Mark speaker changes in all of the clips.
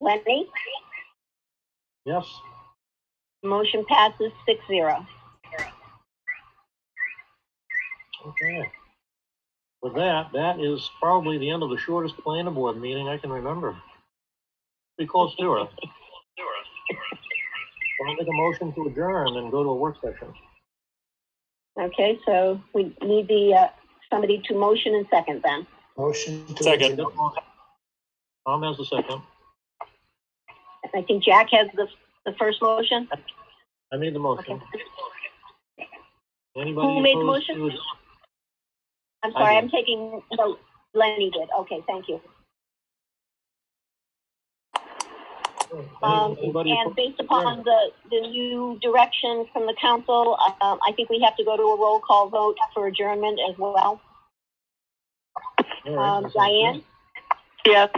Speaker 1: Lenny?
Speaker 2: Yes.
Speaker 1: Motion passes six zero.
Speaker 2: Okay. With that, that is probably the end of the shortest planning board meeting I can remember. Pretty close to it. I'll make a motion to adjourn and go to a work session.
Speaker 1: Okay, so we need the, uh, somebody to motion and second then.
Speaker 3: Motion to.
Speaker 4: Second.
Speaker 3: adjourn.
Speaker 2: Tom has the second.
Speaker 1: I think Jack has the, the first motion.
Speaker 2: I made the
Speaker 1: Okay.
Speaker 2: motion.
Speaker 1: Who made the motion?
Speaker 2: motion?
Speaker 1: I'm sorry,
Speaker 2: I
Speaker 1: I'm taking, no, Lenny did. Okay, thank you. Um,
Speaker 2: Anybody
Speaker 1: and
Speaker 2: opposed?
Speaker 1: based upon the, the new direction from the council, um, I think we have to go to a roll call vote for adjournment as well.
Speaker 2: All right,
Speaker 1: Um,
Speaker 2: that sounds
Speaker 1: Diane?
Speaker 2: good.
Speaker 1: Yes.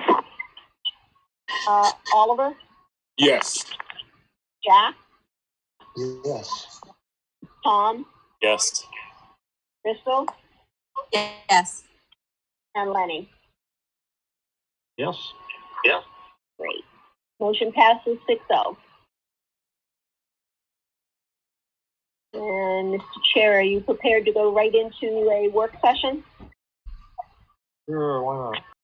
Speaker 1: Uh, Oliver,
Speaker 4: Yes.
Speaker 1: Jack,
Speaker 3: Yes.
Speaker 1: Tom,
Speaker 4: Yes.
Speaker 1: Crystal,
Speaker 5: Yes.
Speaker 1: and Lenny.
Speaker 2: Yes,
Speaker 1: Great. Motion passes six oh. And Mr. Chair, are you prepared to go right into a work session?
Speaker 2: sure, why not?